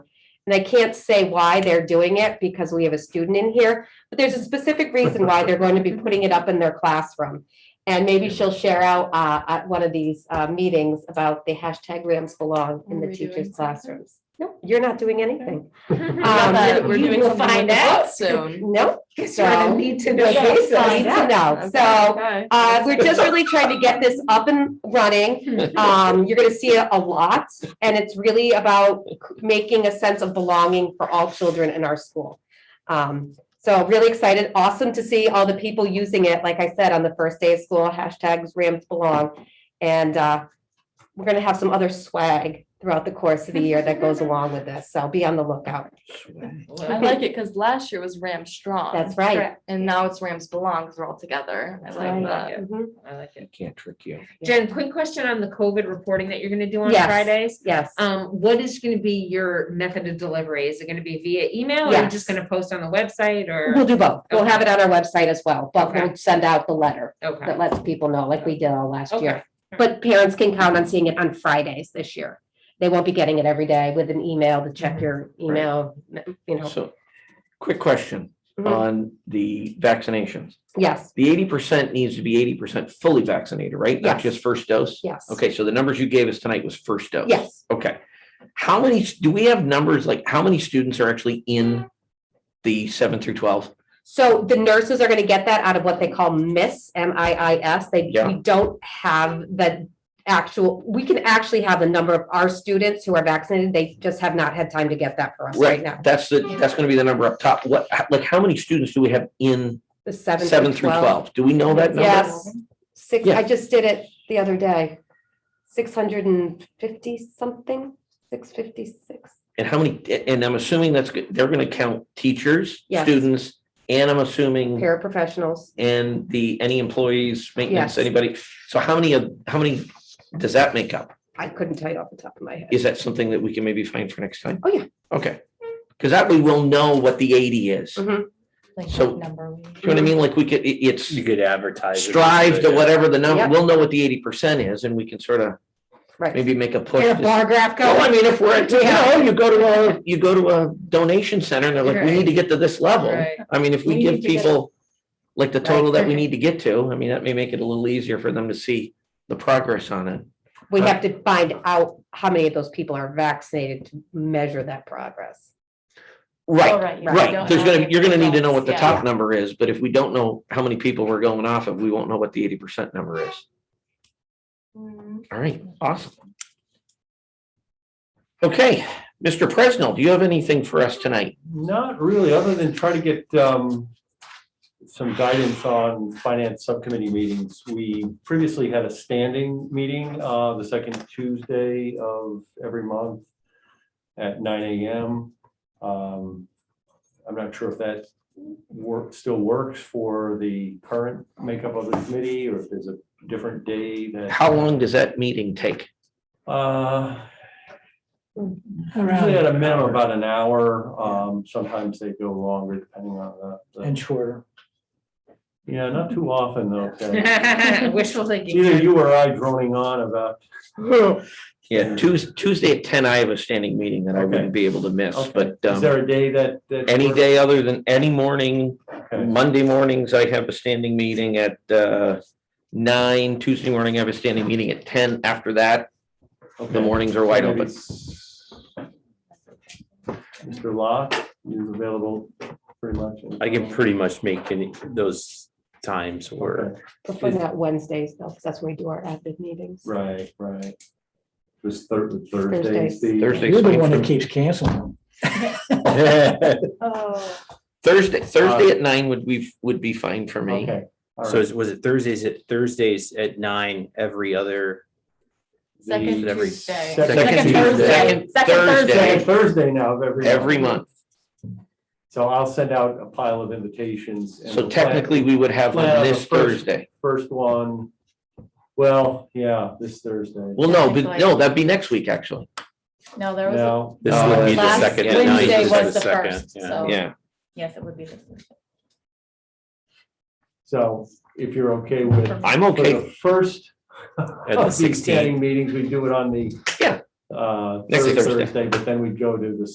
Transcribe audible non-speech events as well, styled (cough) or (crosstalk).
And I can't say why they're doing it because we have a student in here, but there's a specific reason why they're going to be putting it up in their classroom. And maybe she'll share out uh, at one of these uh, meetings about the hashtag Rams belong in Are the we teachers' doing something? classrooms. No, you're not doing anything. Not that Um, We're you doing will something with find the out. (laughs) book (laughs) soon. No, (laughs) You're gonna So- Need to know. Yes, this. need to know. So Okay. uh, we're just really trying to get this up and running. Um, you're gonna see it a lot, and it's really about making a sense of belonging for all children in our school. Um, so really excited, awesome to see all the people using it, like I said, on the first day of school, hashtags Rams belong. And uh, we're gonna have some other swag throughout the course of the year that goes along with this, so be on the lookout. (laughs) I like it because last year was Ram Strong. That's right. And now it's Rams Belong because we're all together. I like Right. uh, that. Mhm. I like it. I can't trick you. Jen, quick question on the COVID reporting that you're gonna do on Yes. Fridays. Yes. Um, what is gonna be your method of delivery? Is it gonna be via email or are you Yes. just gonna post on the website We'll or? do both. We'll have it on our website as well, but we'll Okay. send out the letter Okay, that lets people know, like we did all last okay, year. But parents can count on seeing it on Fridays this year. They won't be getting it every day with an email to check your email, you know. So, quick question Mhm. on the vaccinations. Yes, The eighty percent needs to be eighty percent fully vaccinated, right? Not Yes. just first dose? yes. Okay, so the numbers you gave us tonight was first dose? Yes. Okay. How many, do we have numbers, like how many students are actually in the seven through twelve? So the nurses are gonna get that out of what they call MIS, M I I S. They, Yeah. we don't have the actual, we can actually have the number of our students who are vaccinated. They just have not had time to get that for us right now. That's the, that's gonna be the number up top. What, like, how many students do we have in The seven seven through twelve? Do we know that number? Yes, six, Yeah. I just did it the other day, six hundred and fifty something, six fifty-six. And how many, and I'm assuming that's, good- they're gonna count teachers, Yes. students, and I'm assuming Paraprofessionals, and the, any employees, Yes. maintenance, anybody? So how many of, how many does that make up? I couldn't tell you off the top of my head. Is that something that we can maybe find for next time? Oh, yeah. Okay, because that we will know what the eighty is. You Mhm. know Like So- what number we. what I mean? Like we could, it- it's You could advertise. it. strive to whatever the number, Yeah. we'll know what the eighty percent is and we can sort of Right. maybe make a push. Get a to- bar graph No, I going. mean, if we're, at- you Yeah. know, you go to a, you go to a donation center and they're like, we Right. need to get to this level. Right. I mean, if We we need give to get- people like the total that we Right. need to get to, I mean, that may make it a little easier for them to see the progress on it. We have to find out how many of those people are vaccinated to measure that progress. Oh, Right, Right. yeah, we right. don't There's know gonna, if you're gonna we need to don't- know what the yeah. top number is, but if we don't know how many people we're going off of, we won't know what the eighty percent number is. Mm, All right, awesome. Okay, Mr. Presnell, do you have anything for us tonight? Not really, other than try to get um some guidance on finance subcommittee meetings. We previously had a standing meeting uh the second Tuesday of every month at nine AM. Um, I'm not sure if that work still works for the current makeup of the committee or if there's a different day that How long does that meeting take? uh Usually at a minimum about an hour, um, sometimes they go longer depending on the- the, and shorter. yeah, not too often though. (laughs) Karen. okay. (laughs) Wishful thinking. Either you or I droning on about, Yeah, Tuesday, Tuesday at ten, I have a standing meeting that I Okay. wouldn't be able to miss, okay, but is um, there a day that? that any works? day other than any morning, Okay, Monday mornings, I have a standing meeting at uh, nine, Tuesday morning, I have a standing meeting at ten. After that, the okay. mornings are wide Maybe open. s- Mr. Locke is available pretty much. I can pretty much make any, those times work. (laughs) Okay, Before that Wednesdays though, because that's when we do our admin meetings. Right, right. This Thursday, Thursday. Thursday. You're the swing one that through. keeps canceling them. Oh. Thursday, Thursday at nine would be, would be fine for me. Okay. all Uh, So right. is- was it Thursdays at Thursdays at nine every other? Second every Tuesday. second Second Tuesday. Tuesday. Second Thursday. Second Thursday now of every. Every month. month. So I'll send out a pile of invitations. and So we'll- technically, we would have one Plan on the this first. Thursday. First one, well, yeah, this Thursday. Well, no, but no, that'd be next week, actually. No, there was, a- No, This No, would be the Uh, last second at nine. Wednesday this is was the second, first, yeah. so- Yeah. yes, it would be this Thursday. so if you're okay with. I'm for okay. the First. the of these 16th. Standing meetings, we do it on the. Yeah. Uh, Next third Thursday. Thursday, but then we go to the